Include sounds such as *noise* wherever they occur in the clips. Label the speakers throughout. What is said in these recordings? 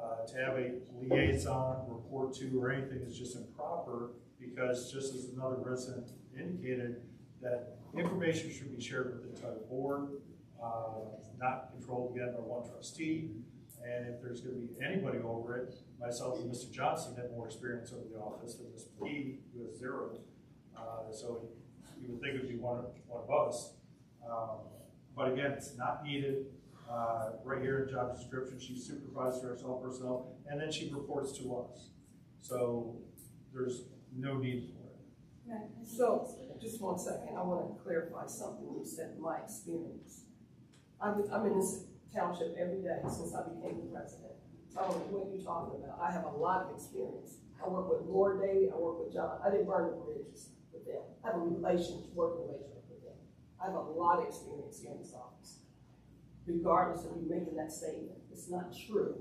Speaker 1: uh, to have a liaison report to or anything is just improper, because just as another resident indicated, that information should be shared with the entire board, uh, not controlled again by one trustee. And if there's gonna be anybody over it, myself and Mr. Johnson had more experience over the office than Mr. P, who has zero. Uh, so you would think it'd be one of, one of us. Um, But again, it's not needed. Uh, right here in job description, she supervises all personnel, and then she reports to us. So there's no need for it.
Speaker 2: So, just one second, I want to clarify something you said, in my experience. I'm, I'm in this township every day since I became the president. So I don't know what you're talking about, I have a lot of experience. I work with Lord Daly, I work with John, I didn't burn the bridges with them. I have a relationship, work relationship with them. I have a lot of experience here in this office. Regardless of you making that statement, it's not true.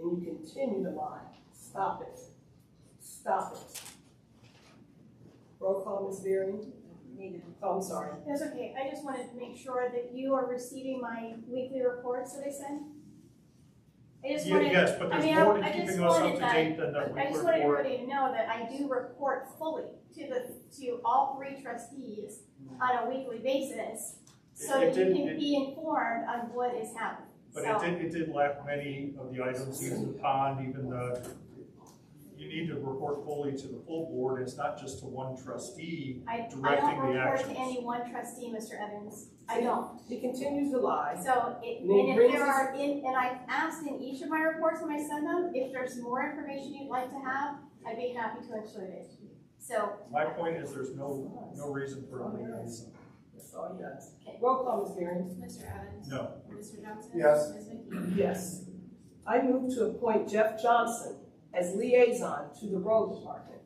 Speaker 2: And you continue to lie, stop it, stop it. Roll call, Ms. Beering?
Speaker 3: Nina.
Speaker 2: Oh, I'm sorry.
Speaker 4: That's okay, I just wanted to make sure that you are receiving my weekly reports that I send. I just
Speaker 1: Ye-
Speaker 4: wanted,
Speaker 1: Yes, but
Speaker 4: I
Speaker 1: there's
Speaker 4: mean,
Speaker 1: more to
Speaker 4: I- I just
Speaker 1: keeping us up
Speaker 4: wanted
Speaker 1: to
Speaker 4: that-
Speaker 1: date than that we
Speaker 4: I just wanted
Speaker 1: report.
Speaker 4: everybody to know that I do report fully to the, to all three trustees on a weekly basis, so
Speaker 1: It- it
Speaker 4: that you
Speaker 1: didn't-
Speaker 4: can
Speaker 1: it-
Speaker 4: be informed on what is happening.
Speaker 1: But it
Speaker 4: So,
Speaker 1: did, it did lack many of the items, even the pond, even the, you need to report fully to the full board. It's not just to one trustee.
Speaker 4: I, I
Speaker 1: directing
Speaker 4: don't
Speaker 1: the
Speaker 4: report to
Speaker 1: actions.
Speaker 4: any one trustee, Mr. Evans, I don't.
Speaker 2: He continues to lie.
Speaker 4: So, it-
Speaker 2: Well,
Speaker 4: and if
Speaker 2: brings
Speaker 4: there
Speaker 2: us-
Speaker 4: are, in- and I've asked in each of my reports when I send them, if there's more information you'd like to have, I'd be happy to include it. So,
Speaker 1: My point is there's no, no reason for a liaison.
Speaker 2: That's all he does. Roll call, Ms. Beering?
Speaker 3: Mr. Evans?
Speaker 1: No.
Speaker 3: Mr. Johnson?
Speaker 5: Yes.
Speaker 3: Ms. McKee?
Speaker 2: Yes. I move to appoint Jeff Johnson as liaison to the road department.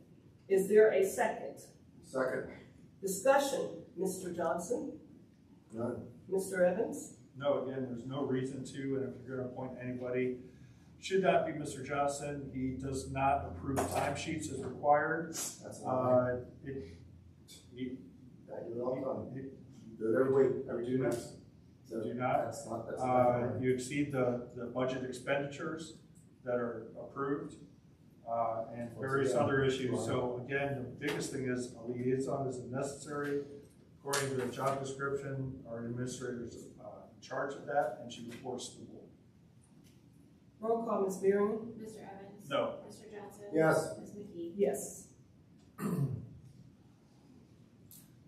Speaker 2: Is there a second?
Speaker 5: Second.
Speaker 2: Discussion, Mr. Johnson?
Speaker 5: None.
Speaker 2: Mr. Evans?
Speaker 1: No, again, there's no reason to, and if you're gonna appoint anybody, should not be Mr. Johnson. He does not approve time sheets as required.
Speaker 5: That's not
Speaker 1: Uh, it, he,
Speaker 5: right. I do it all the time.
Speaker 1: he-
Speaker 5: Do it every week, every two weeks. So
Speaker 1: do not,
Speaker 5: That's not, that's not
Speaker 1: uh,
Speaker 5: right.
Speaker 1: you exceed the, the budget expenditures that are approved, uh, and various other issues. So again, the biggest thing is a liaison is necessary. According to the job description, our administrator's, uh, in charge of that, and she reports to the board.
Speaker 2: Roll call, Ms. Beering?
Speaker 3: Mr. Evans?
Speaker 1: No,
Speaker 3: Mr. Johnson?
Speaker 5: Yes.
Speaker 3: Ms. McKee?
Speaker 2: Yes. *clears throat*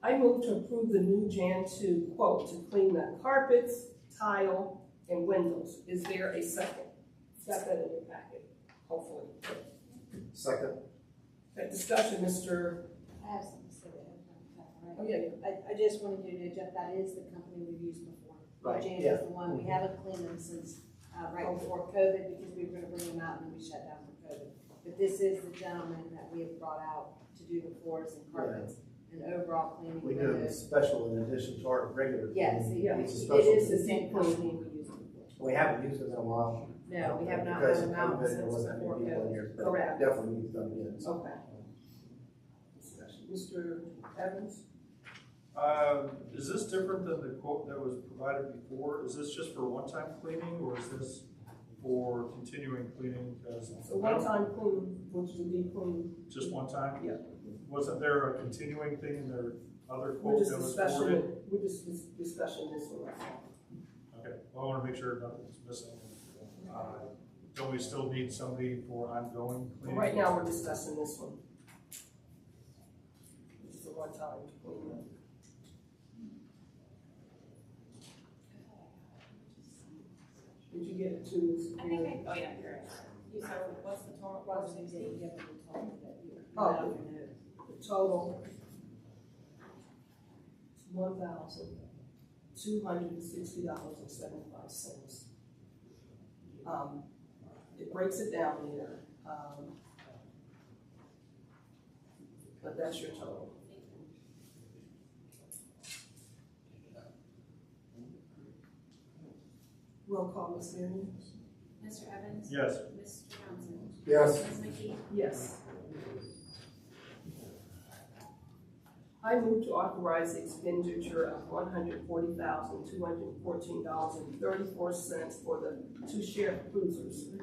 Speaker 2: I move to approve the new Jan two quote to clean the carpets, tile, and windows. Is there a second? It's Got that in your packet, hopefully.
Speaker 5: Second.
Speaker 2: That discussion, Mr.
Speaker 6: I have something to say that I'm not- that's all right.
Speaker 2: Oh, yeah,
Speaker 6: I, I just wanted you to know, Jeff, that is the company we've used before.
Speaker 5: Right,
Speaker 6: James
Speaker 5: yeah.
Speaker 6: is the one, we haven't cleaned them since, uh, right before COVID, because we were gonna bring them out and then we shut down for COVID. But this is the gentleman that we have brought out to do the floors and carpets and overall cleaning.
Speaker 5: We do a
Speaker 6: windows.
Speaker 5: special in addition to our regular.
Speaker 6: Yes, it
Speaker 2: Yeah,
Speaker 6: it
Speaker 5: It's a special.
Speaker 6: is the same company we used before.
Speaker 5: We haven't used it in a while.
Speaker 6: No, we have not
Speaker 5: Because
Speaker 6: had them
Speaker 5: of
Speaker 6: out
Speaker 5: COVID,
Speaker 6: since
Speaker 5: There wasn't
Speaker 6: before
Speaker 5: many people in
Speaker 6: COVID.
Speaker 5: here, but
Speaker 2: Correct.
Speaker 5: definitely needs done again. So
Speaker 2: Okay. Discussion. Mr. Evans?
Speaker 1: Um, Is this different than the quote that was provided before? Is this just for one-time cleaning, or is this for continuing cleaning? Because
Speaker 2: So one-time clean, which would be clean,
Speaker 1: Just one time?
Speaker 2: Yeah.
Speaker 1: Wasn't there a continuing thing in their other
Speaker 2: we're
Speaker 1: quote
Speaker 2: just
Speaker 1: that was forwarded?
Speaker 2: discussing, we're just dis- discussing this one.
Speaker 1: Okay, well, I want to make sure nothing's missing. Uh, Don't we still need somebody for ongoing cleaning?
Speaker 2: Right now, we're discussing this one. This is a one-time clean. Did you get it too?
Speaker 3: I think I, oh, yeah, you're right. You- So what's the total, what's the
Speaker 6: You
Speaker 3: sixty?
Speaker 6: haven't been told that you-
Speaker 2: Oh. The total. One thousand, two hundred and sixty dollars and seventy-five cents. Um, it breaks it down there, um. But that's your total. Roll call, Ms. Marion?
Speaker 3: Mr. Evans?
Speaker 1: Yes,
Speaker 3: Mr. Johnson?
Speaker 5: Yes.
Speaker 3: Ms. McKee?
Speaker 2: Yes. I move to authorize the expenditure of one hundred forty thousand, two hundred fourteen dollars and thirty-four cents for the two sheriff cruisers